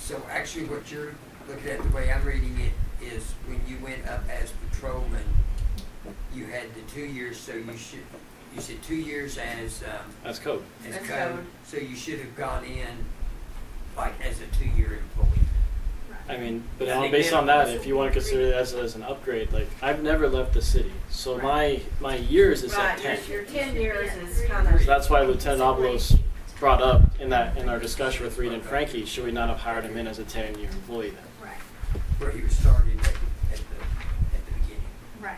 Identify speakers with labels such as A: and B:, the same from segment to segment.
A: So actually what you're looking at, the way I'm reading it, is when you went up as patrolman, you had the two years, so you should, you said two years as, um,
B: That's code.
A: as
C: As
A: code.
C: code.
A: So you should have gone in like as a two-year employee.
B: I mean, but
A: I
B: on,
A: think
B: based
A: they
B: on
A: don't
B: that, if you want to consider that as, as an upgrade, like I've never left the city, so
C: Right.
B: my my years is at
C: Right,
B: ten.
C: your, your ten years is kind of.
B: So that's why Lieutenant Oblos brought up in that in our discussion with Reed and Frankie, should we not have hired him in as a ten-year employee then?
D: Right,
A: where he was starting at, the- at the, at the beginning.
D: right.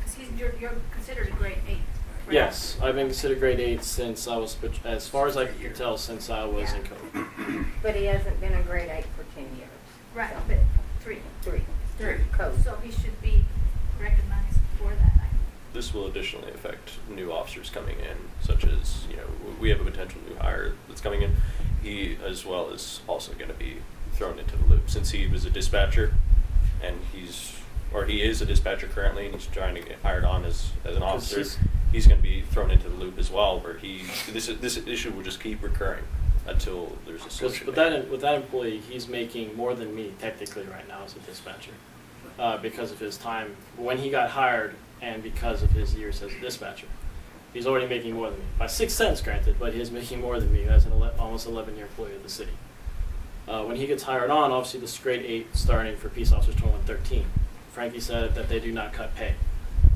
D: Because he's, you're, you're considered a grade eight. right?
B: Yes, I've been considered grade eight since I was, but as far as I can tell, since I was in
E: Yeah.
B: code.
E: But he hasn't been a grade eight for ten years.
D: Right,
E: So,
D: but three.
E: Three.
A: Three.
E: Code.
D: So he should be recognized for that. I-
F: This will additionally affect new officers coming in, such as, you know, w- we have a potential new hire that's coming in. He, as well, is also going to be thrown into the loop since he was a dispatcher and he's, or he is a dispatcher currently and he's trying to get hired on as, as an
B: Because
F: officer.
B: he's-
F: He's going to be thrown into the loop as well, where he, this, this issue will just keep recurring until there's a
B: Because
F: solution.
B: with
F: made.
B: that with that employee, he's making more than me technically right now as a dispatcher, uh, because of his time when he got hired and because of his years as a dispatcher. He's already making more than me by six cents, granted, but he is making more than me as an ele- almost 11-year employee of the city. Uh, when he gets hired on, obviously this grade eight starting for peace officers 2113. Frankie said that they do not cut pay.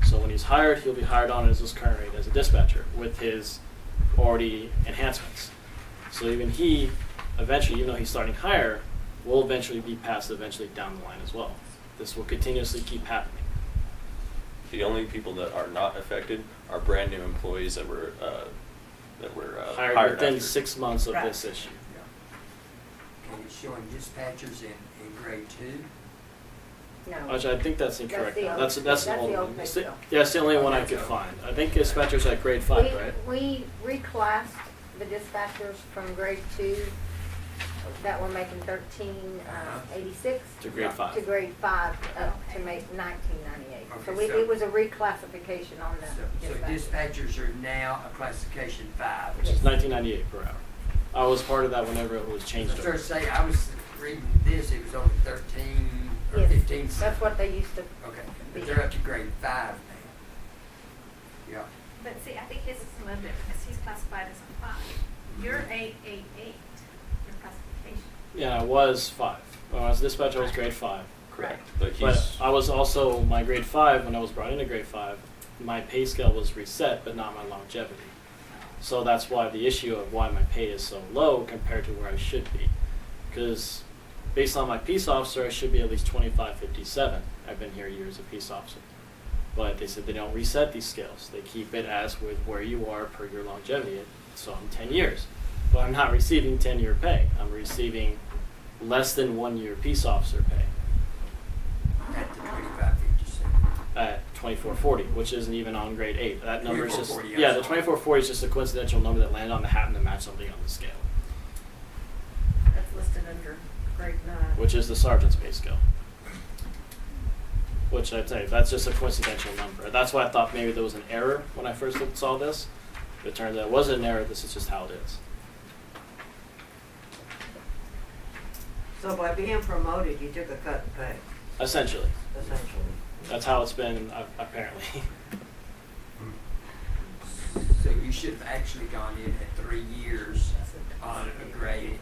B: So when he's hired, he'll be hired on as his current rate as a dispatcher with his already enhancements. So even he, eventually, even though he's starting higher, will eventually be passed eventually down the line as well. This will continuously keep happening.
F: The only people that are not affected are brand new employees that were, uh, that were uh,
B: Hired, within
F: after.
B: six months of
C: Right.
B: this issue.
A: Yeah. And it's showing dispatchers in, in grade two.
E: No.
B: Actually, I think that's
E: That's
B: incorrect.
E: the
B: now.
E: old-
B: That's that's,
E: that's
B: the old
E: the old
B: one. It's
E: pay
B: the-
E: scale.
B: yeah, it's the only one I could
A: Okay.
B: find. I think dispatchers at grade five,
E: We-
B: right?
E: We reclassed the dispatchers from grade two that were making thirteen uh,
A: Uh-huh.
E: eighty-six
B: To grade five.
E: to grade five up to
D: Okay.
E: make nineteen ninety-eight. So
A: Okay,
E: we,
A: so-
E: it was a reclassification on
A: So,
E: the
A: so
E: dispatchers.
A: dispatchers are now a classification five.
B: Which is
E: Yes.
B: 1998 per hour. I was part of that whenever it was
A: I
B: changed.
A: was
B: over.
A: gonna say, I was reading this, it was only thirteen or fifteen.
E: Yes, that's what they used to.
A: Okay, but they're up to grade five now. Yeah.
D: But see, I think his is a little bit, because he's classified as a five. You're eight, eight, eight, your classification.
B: Yeah, I was five. When I was dispatcher, I was grade five.
F: Correct, but
B: But
F: he's,
B: I was also my grade five when I was brought into grade five. My pay scale was reset, but not my longevity. So that's why the issue of why my pay is so low compared to where I should be, because based on my peace officer, I should be at least twenty five fifty seven. I've been here years as a peace officer, but they said they don't reset these scales. They keep it as with where you are per your longevity. So I'm ten years, but I'm not receiving ten year pay. I'm receiving less than one year peace officer pay
A: At the twenty-five fifty-seven.
B: at 2440, which isn't even on grade eight. That number is just
A: 2440, yes.
B: yeah, the 2440 is just a coincidental number that landed on the hat and to match something on the scale,
C: That's listed under grade nine.
B: which is the sergeant's pay scale. Which I tell you, that's just a coincidental number. That's why I thought maybe there was an error when I first looked, saw this. It turns out it wasn't an error. This is just how it is.
C: So by being promoted, you took a cut in pay,
B: Essentially,
C: essentially.
B: that's how it's been uh, apparently.
A: So you should have actually gone in at three years on a grade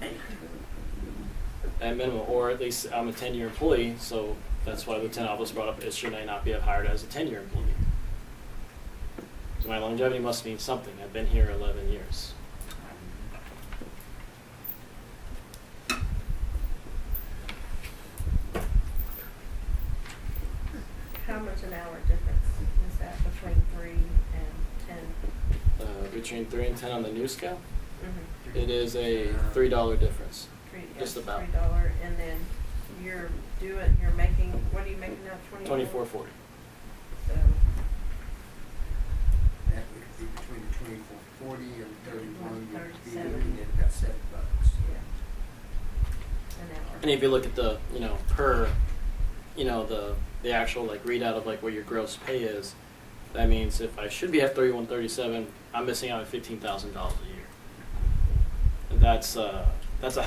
A: eight.
B: at minimum, or at least I'm a ten-year employee, so that's why Lieutenant Oblis brought up, it should I not be hired as a ten-year employee? So my longevity must mean something, I've been here eleven years.
G: How much an hour difference is that between three and ten?
B: Uh, between three and ten on the new scale,
G: Mm-hmm.
B: it is a
A: Uh,
B: three-dollar difference.
G: Three,
B: Just
G: yeah,
B: about.
G: Three dollar, and then you're doing, you're making, what are you making now, twenty?
B: Twenty-four forty.
G: So,
A: That would be between twenty-four forty and thirty-one, you'd be
G: 37.
A: looking at about seven bucks.
G: yeah. An hour.
B: And if you look at the, you know, per, you know, the the actual like readout of like what your gross pay is, that means if I should be at thirty one thirty seven, I'm missing out on fifteen thousand dollars a year. And that's uh that's a